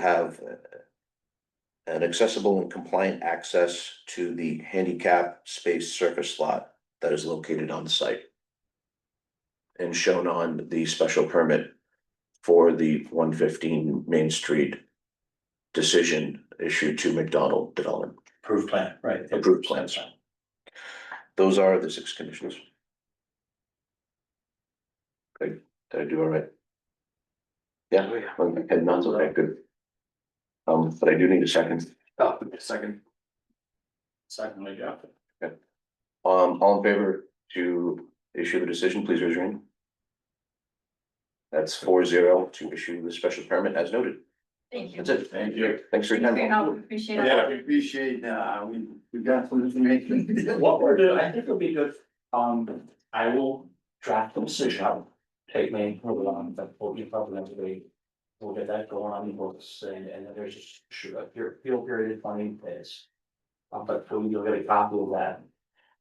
have uh, an accessible and compliant access to the handicap space surface lot that is located on site. And shown on the special permit for the one fifteen Main Street decision issued to McDonald Development. Approved plan, right. Approved plans. Those are the six conditions. Good, did I do all right? Yeah, and not so that good. Um, but I do need a second. Oh, second. Secondly, yeah. Um, all in favor to issue the decision, please raise your hand. That's four zero to issue the special permit as noted. Thank you. That's it. Thank you. Thanks for your Thanks for your help, time. appreciate it. Yeah, we appreciate, uh, we, we got some information. What we're doing, I think it'll be good, um, I will draft the decision, I'll take me, hold on, but we'll be probably next week. We'll get that going on the books and, and then there's just, shoot, a peer, appeal period of twenty days. Uh, but we will get a copy of that.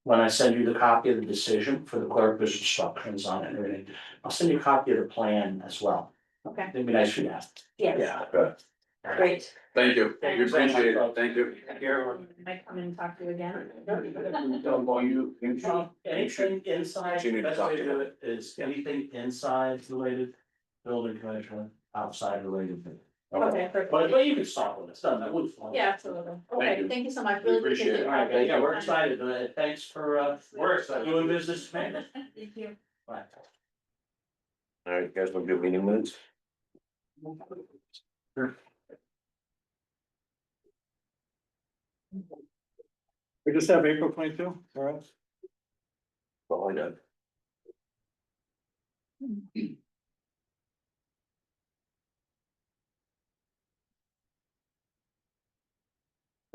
When I send you the copy of the decision for the clerk, there's instructions on it and everything, I'll send you a copy of the plan as well. Okay, It'd be nice for you to have. yes, great. Thank you, Thank you. we appreciate it, thank you. Might come and talk to you again. Don't go, you, you should- anything inside, You need to best talk way to to do it is anything inside related, building commissioner, outside related. Okay, But, perfect. but you can start with it, it's done, that would. Yeah, absolutely. Thank Okay, you. thank you so much. We Really appreciate it. it. All right, but yeah, we're excited, uh, thanks for, uh, we're excited, doing business, man. Thank you. Right. All right, you guys, want to do meeting minutes? We just have April twenty-two, all right? Well, I know.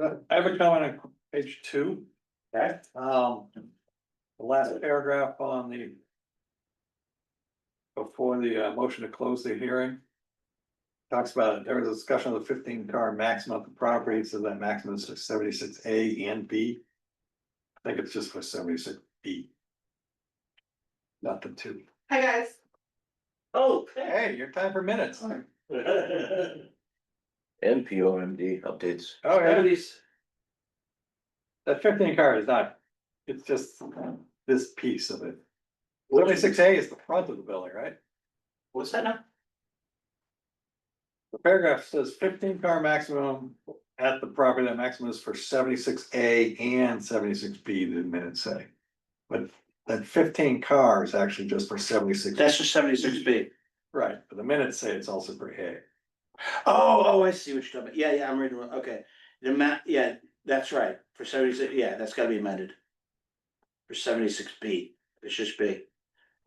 Uh, I have a comment on page two, Okay. um, the last paragraph on the. Before the uh, motion to close the hearing. Talks about, there was a discussion of the fifteen car maximum of the property, so that maximum is seventy-six A and B. I think it's just for seventy-six B. Not the two. Hi, guys. Oh. Hey, your time for minutes. Oh, And P O M D updates. yeah, that fifteen car is not, it's just this piece of it. Seventy-six A is the front of the building, right? What's that now? The paragraph says fifteen car maximum at the property, that maximum is for seventy-six A and seventy-six B, the minutes say. But that fifteen car is actually just for seventy-six, That's just seventy-six B. right, but the minutes say it's also for A. Oh, oh, I see what you're talking about. Yeah, yeah, I'm reading, wrong. okay. The ma, yeah, that's right. For seventy-six, yeah, that's gotta be amended. For seventy-six B, it's just B.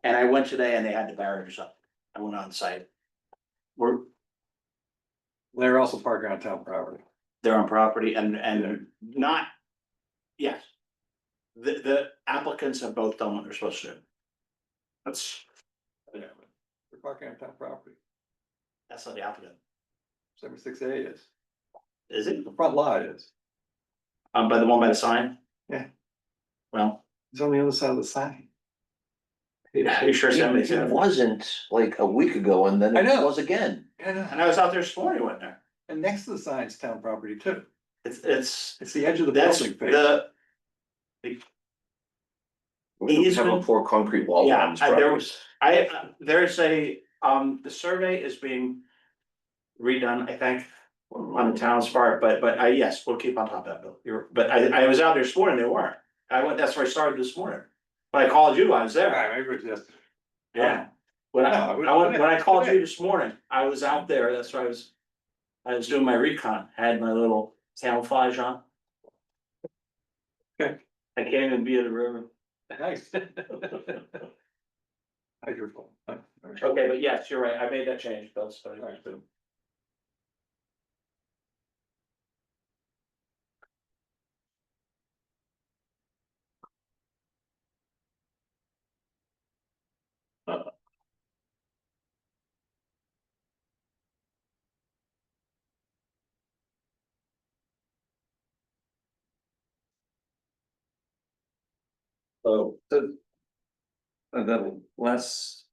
And I went today and they had the barriers up. I went on site. We're, They're also parking on town property. they're on property and, and not, yes. The, the applicants have both done what they're supposed to do. That's, They're parking on town property. that's not the applicant, Seventy-six A is, is it? the front lot is. Um, by the one by the sign? Yeah. Well, It's on the other side of the sign. are you sure seventy-six? It wasn't like a week ago and then I it know. was again. Yeah, And I was out there this morning, wasn't there? and next to the sign's town property too. It's, it's, It's the edge of the that's building. face. the, We have a Easement. poor concrete wall. Yeah, around this I- there property. was- I, uh, there's a, um, the survey is being redone, I think, on the town's part, but, but I, yes, we'll keep on top of that, Bill. You're, but I, I was out there this morning, they weren't. I went, that's where I started this morning. When I called you, I was All there. right, maybe it's just. Yeah. When I, No, it was- I went, when I called you this morning, I was out there, that's where I was, I was doing my recon, had my little camouflage on. Okay. I can't even be in the river. Nice. Hydrophone. Okay, but yes, you're right, I made that change, Bill, so. So, the. uh, The last,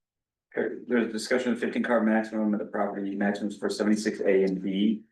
par- there's discussion of fifteen car maximum of the property, maximums for seventy-six A and B.